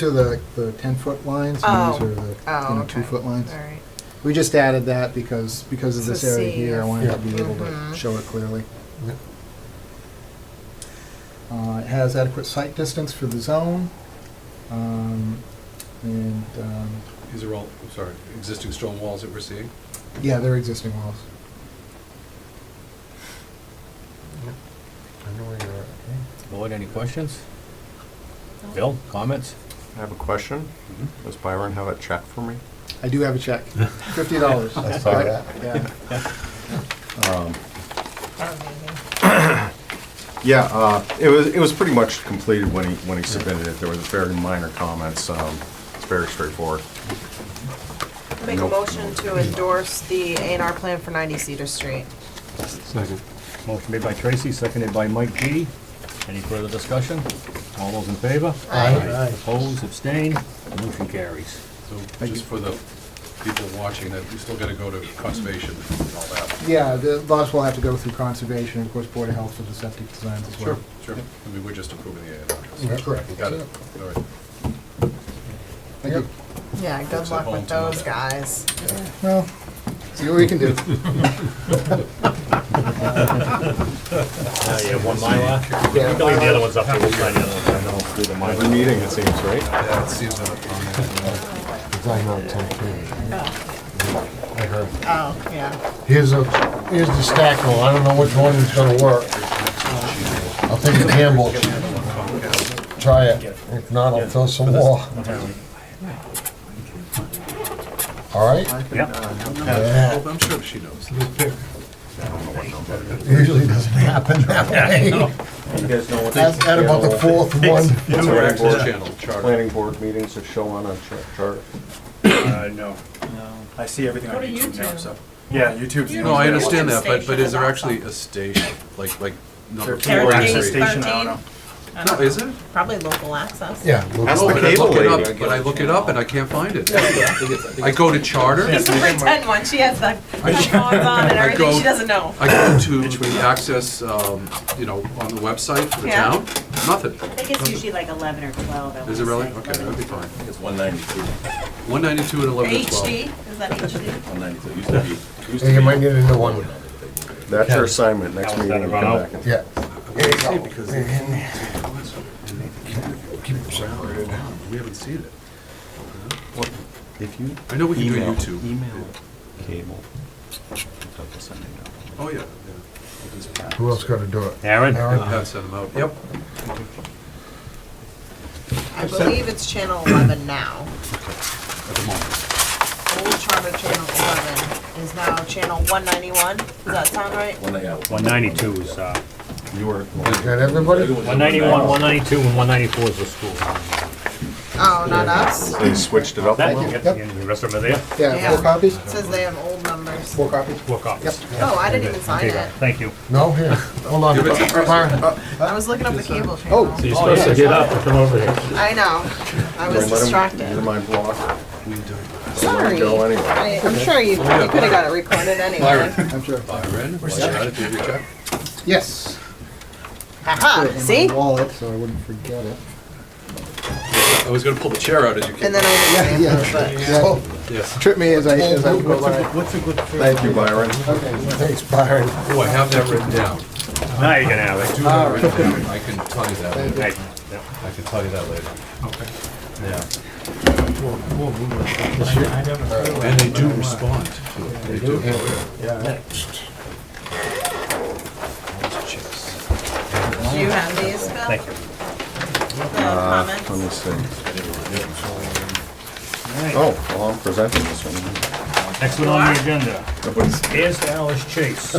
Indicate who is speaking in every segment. Speaker 1: To the, the ten-foot lines,
Speaker 2: Oh.
Speaker 1: and these are the,
Speaker 2: Oh,
Speaker 1: you know,
Speaker 2: okay.
Speaker 1: two-foot
Speaker 2: All
Speaker 1: lines.
Speaker 2: right.
Speaker 1: We just added that because, because of
Speaker 2: To
Speaker 1: this area
Speaker 2: see
Speaker 1: here, I
Speaker 2: if-
Speaker 1: wanted to be able to
Speaker 2: Mhm.
Speaker 1: show it clearly.
Speaker 3: Yeah.
Speaker 1: Uh, it has adequate sight distance for the zone, um, and, um,
Speaker 4: These are all, I'm sorry, existing stone walls that we're seeing?
Speaker 1: yeah, they're existing walls.
Speaker 3: Yep. I know where you're at, okay.
Speaker 5: Board, any questions? Bill, comments?
Speaker 6: I have a question. Does Byron have a check for me?
Speaker 1: I do have a check, fifty dollars.
Speaker 3: I saw that.
Speaker 1: Yeah,
Speaker 2: Oh, maybe.
Speaker 6: Yeah, uh, it was, it was pretty much completed when he, when he submitted it. There was very minor comments. um, It's very straightforward.
Speaker 2: Make a
Speaker 6: Nope.
Speaker 2: motion to endorse the A and R plan for 90 Cedar Street.
Speaker 3: Second.
Speaker 5: Motion made by Tracy, seconded by Mike G. Any further discussion? All those in favor?
Speaker 2: Aye.
Speaker 3: Aye.
Speaker 5: Opposed, abstained, motion carries.
Speaker 4: So just for the people watching, that we still gotta go to conservation and all that?
Speaker 1: yeah, the lots will have to go through conservation, of course, Board of Health for the septic designs as well.
Speaker 4: Sure, I mean, we're just approving the A and
Speaker 1: Yeah,
Speaker 4: R.
Speaker 1: correct.
Speaker 4: Got it, all right.
Speaker 1: Thank you.
Speaker 2: Yeah, good
Speaker 4: Looks like
Speaker 2: luck with
Speaker 4: home to
Speaker 2: those
Speaker 4: them.
Speaker 2: guys.
Speaker 1: Well, see what we can do.
Speaker 5: Uh, yeah, one Mylar.
Speaker 1: Yeah.
Speaker 5: leave the other ones up here, we'll sign the other ones, I know, do the
Speaker 6: Every
Speaker 5: Mylar.
Speaker 6: meeting, it seems, right?
Speaker 4: Yeah, it seems that on
Speaker 3: It's like on top here. I heard.
Speaker 2: Oh, yeah.
Speaker 3: Here's a, here's the stack hole, I don't know which one is gonna work. I'll take a gamble, try it, if not, I'll fill some more. All right? Yeah.
Speaker 4: I'm sure she knows.
Speaker 3: Usually doesn't happen that way.
Speaker 6: You guys know what?
Speaker 3: At at about the fourth one.
Speaker 4: It's our access channel charter.
Speaker 6: Planning board meetings that show on a chart- chart.
Speaker 7: Uh, no. No. I see everything on YouTube now, so. Yeah, YouTube's. the only
Speaker 4: No, I
Speaker 7: way
Speaker 4: understand that, but, but
Speaker 2: Station
Speaker 4: is
Speaker 2: is
Speaker 4: there actually a station, like, like number
Speaker 7: watch.
Speaker 4: four
Speaker 7: Or
Speaker 4: and
Speaker 7: is the
Speaker 2: Thirteen.
Speaker 4: three?
Speaker 7: station, I don't know.
Speaker 2: I
Speaker 4: No,
Speaker 2: don't-
Speaker 4: is it?
Speaker 2: Probably local access.
Speaker 3: Yeah.
Speaker 6: Ask
Speaker 4: No,
Speaker 6: the
Speaker 4: but I
Speaker 6: cable
Speaker 4: look it
Speaker 6: lady.
Speaker 4: up, but I look it up and I can't find it. I go to charter,
Speaker 7: Yeah.
Speaker 2: She's pretend one, she has the the phones on and
Speaker 4: I
Speaker 2: everything,
Speaker 4: go-
Speaker 2: she doesn't know.
Speaker 4: I go to the access, um, you know, on the website for the
Speaker 2: Yeah.
Speaker 4: town, nothing.
Speaker 8: I think it's usually like 11 or 12. I
Speaker 4: Is it
Speaker 8: wanna
Speaker 4: really?
Speaker 8: say.
Speaker 4: Okay, that'd be fine.
Speaker 9: It's 192,
Speaker 4: One ninety-two and eleven twelve.
Speaker 2: HD, is that HD?
Speaker 9: 192, used to be, used
Speaker 3: You might
Speaker 9: to be.
Speaker 3: need a new one,
Speaker 6: That's your assignment, next
Speaker 5: That was
Speaker 6: meeting.
Speaker 5: gonna
Speaker 6: you
Speaker 5: run
Speaker 6: come back
Speaker 5: out.
Speaker 6: and-
Speaker 3: yeah.
Speaker 4: We haven't seen it.
Speaker 9: If you
Speaker 4: I know we can do
Speaker 9: email,
Speaker 4: YouTube.
Speaker 9: email cable. I'll just send it out.
Speaker 4: Oh, yeah, yeah.
Speaker 3: Who else gonna do it?
Speaker 5: Aaron?
Speaker 3: Aaron?
Speaker 4: Pat sent them out, yep.
Speaker 2: I believe it's channel 11 now.
Speaker 4: At the moment.
Speaker 2: Old charter channel 11 is now channel 191. Does that sound right?
Speaker 9: One- yeah, one-
Speaker 5: One ninety-two is, uh,
Speaker 6: You were,
Speaker 3: Got everybody?
Speaker 5: one ninety-one, one ninety-two, and one ninety-four is the school.
Speaker 2: Oh, not us?
Speaker 6: they switched it up. a
Speaker 5: That,
Speaker 6: little.
Speaker 5: yep, and the rest of them are there,
Speaker 1: Yeah, four
Speaker 2: Yeah.
Speaker 1: copies?
Speaker 2: Says they have old numbers.
Speaker 1: Four copies?
Speaker 5: four copies.
Speaker 2: Oh, I didn't even sign it.
Speaker 5: Thank you.
Speaker 3: No, here, hold on. Byron,
Speaker 2: I was looking up the cable channel.
Speaker 5: You're supposed to get up and come over here.
Speaker 2: I know. I was
Speaker 6: Let 'em- Your
Speaker 2: distracted.
Speaker 6: mind block.
Speaker 4: We do. it.
Speaker 2: Sorry.
Speaker 6: Go anyway.
Speaker 2: I, I'm sure you, you could have got it recorded anyway.
Speaker 1: I'm sure.
Speaker 4: Byron, why you at it, did you check?
Speaker 1: Yes. Put it
Speaker 2: Haha,
Speaker 1: in my
Speaker 2: Ah, see?
Speaker 1: Wallet, so I wouldn't forget it.
Speaker 4: I was gonna pull the chair out as you
Speaker 2: And
Speaker 4: came.
Speaker 2: then I didn't answer, but.
Speaker 1: Yeah,
Speaker 4: Yes.
Speaker 1: trip me as I, as I go by.
Speaker 6: Thank you, Byron.
Speaker 3: thanks, Byron.
Speaker 4: Oh, I have that written down.
Speaker 5: Now you can have
Speaker 4: I
Speaker 5: it.
Speaker 4: do have it written down. I can tell you that later.
Speaker 5: Hey, yeah.
Speaker 4: I can tell you that later. Okay. Yeah. And they do respond to it. They do.
Speaker 2: Do you have these, Bill?
Speaker 5: Thank you.
Speaker 2: The
Speaker 6: Uh, Let me
Speaker 2: comments?
Speaker 6: see. Oh, well, I'm presenting this one.
Speaker 5: Next one on the agenda.
Speaker 6: Nobody's
Speaker 5: Here's Alice Chase.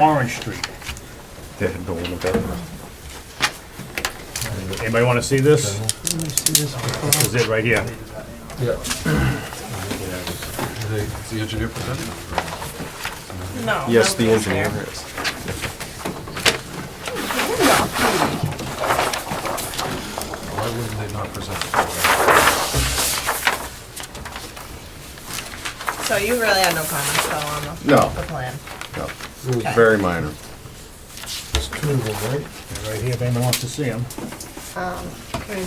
Speaker 5: Orange Street.
Speaker 6: dead, no one better.
Speaker 5: Anybody want to see this? This is it right here.
Speaker 3: Yeah.
Speaker 4: Is the engineer presenting?
Speaker 2: No.
Speaker 6: Yes, the
Speaker 2: nobody's
Speaker 6: engineer
Speaker 2: there.
Speaker 6: is.
Speaker 4: Why wouldn't they not present?
Speaker 2: So you really had no comments though on the,
Speaker 6: No,
Speaker 2: the plan?
Speaker 6: no, very minor.
Speaker 3: There's two of them, right?
Speaker 5: Right here, if anyone wants to see them.
Speaker 2: Um, pretty